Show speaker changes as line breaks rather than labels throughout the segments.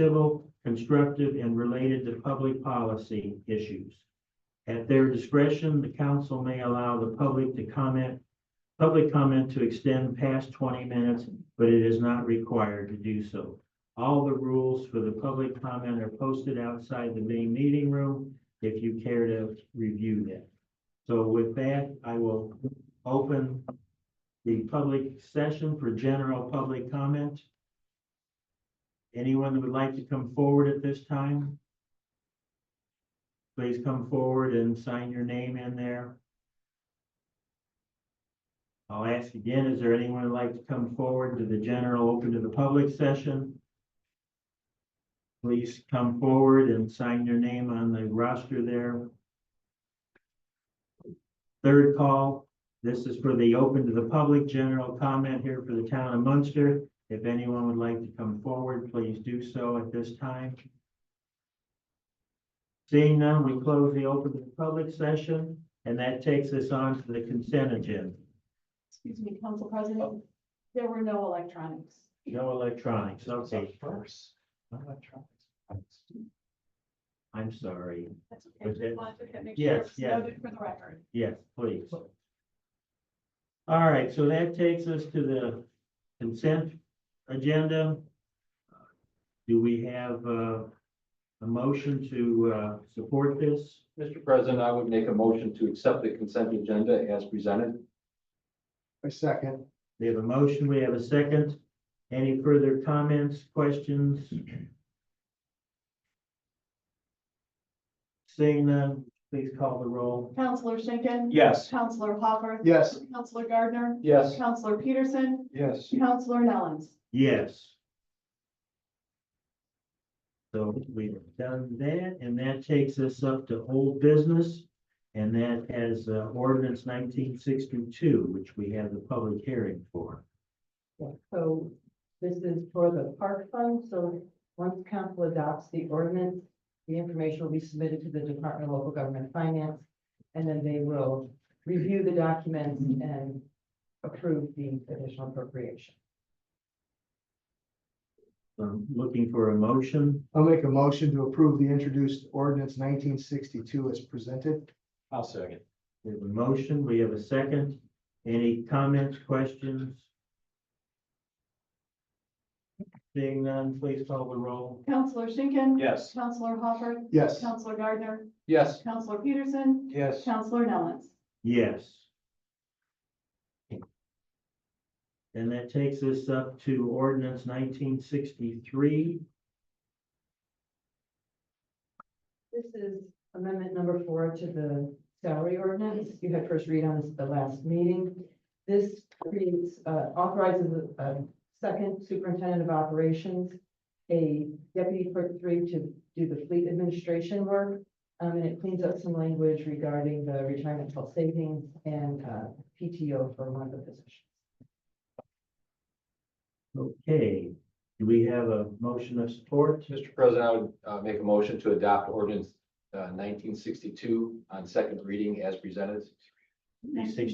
civil, constructive, and related to public policy issues. At their discretion, the council may allow the public to comment, public comment to extend past twenty minutes, but it is not required to do so. All the rules for the public comment are posted outside the main meeting room if you care to review them. So with that, I will open the public session for general public comment. Anyone that would like to come forward at this time? Please come forward and sign your name in there. I'll ask again, is there anyone that'd like to come forward to the general, open to the public session? Please come forward and sign your name on the roster there. Third call, this is for the open to the public general comment here for the town of Munster. If anyone would like to come forward, please do so at this time. Seeing none, we close the open to the public session, and that takes us on to the consent agenda.
Excuse me, Council President, there were no electronics.
No electronics, okay,
first. electronics.
I'm sorry.
That's okay.
Was it?
Just wanted to make sure
Yes,
it's
yes.
Noted for the record.
Yes, please. All right, so that takes us to the consent agenda. Do we have uh, a motion to uh, support this?
Mr. President, I would make a motion to accept the consent agenda as presented.
A second.
We have a motion, we have a second. Any further comments, questions? Seeing none, please call the roll.
Counselor Schinkin.
Yes.
Counselor Hopper.
Yes.
Counselor Gardner.
Yes.
Counselor Peterson.
Yes.
Counselor Nellens.
Yes. So we've done that, and that takes us up to old business. And that has uh, ordinance nineteen sixty-two, which we have the public hearing for.
Yeah, so this is for the park fund, so once council adopts the ordinance, the information will be submitted to the Department of Local Government Finance, and then they will review the documents and approve the additional appropriation.
I'm looking for a motion.
I'll make a motion to approve the introduced ordinance nineteen sixty-two as presented.
I'll second.
We have a motion, we have a second. Any comments, questions? Seeing none, please call the roll.
Counselor Schinkin.
Yes.
Counselor Hopper.
Yes.
Counselor Gardner.
Yes.
Counselor Peterson.
Yes.
Counselor Nellens.
Yes. And that takes us up to ordinance nineteen sixty-three.
This is amendment number four to the salary ordinance. You had first read on this at the last meeting. This creates, uh, authorizes a- a second superintendent of operations, a deputy clerk three to do the fleet administration work. Um, and it cleans up some language regarding the retirement health savings and, uh, PTO for one of the positions.
Okay, do we have a motion of support?
Mr. President, I would uh, make a motion to adopt ordinance uh, nineteen sixty-two on second reading as presented in nineteen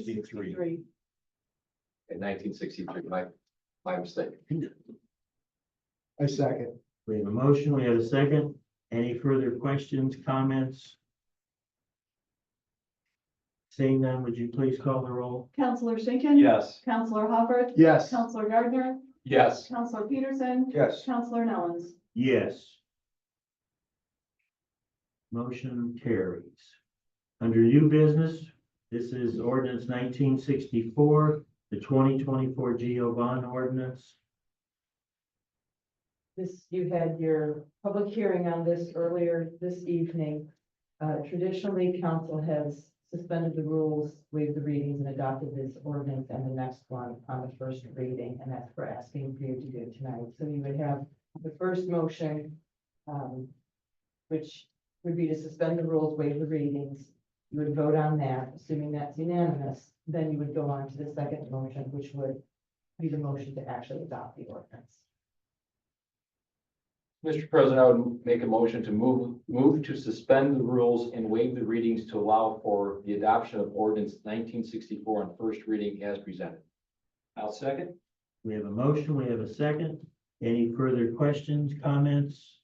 sixty-three. My, my mistake.
A second.
We have a motion, we have a second. Any further questions, comments? Seeing none, would you please call the roll?
Counselor Schinkin.
Yes.
Counselor Hopper.
Yes.
Counselor Gardner.
Yes.
Counselor Peterson.
Yes.
Counselor Nellens.
Yes. Motion carries. Under new business, this is ordinance nineteen sixty-four, the twenty twenty-four GO bond ordinance.
This, you had your public hearing on this earlier this evening. Uh, traditionally, council has suspended the rules, waived the readings and adopted this ordinance and the next one on the first reading, and that's for asking for you to do tonight. So you would have the first motion, um, which would be to suspend the rules, waive the readings. You would vote on that, assuming that's unanimous, then you would go on to the second motion, which would be the motion to actually adopt the ordinance.
Mr. President, I would make a motion to move, move to suspend the rules and waive the readings to allow for the adoption of ordinance nineteen sixty-four on first reading as presented. I'll second.
We have a motion, we have a second. Any further questions, comments?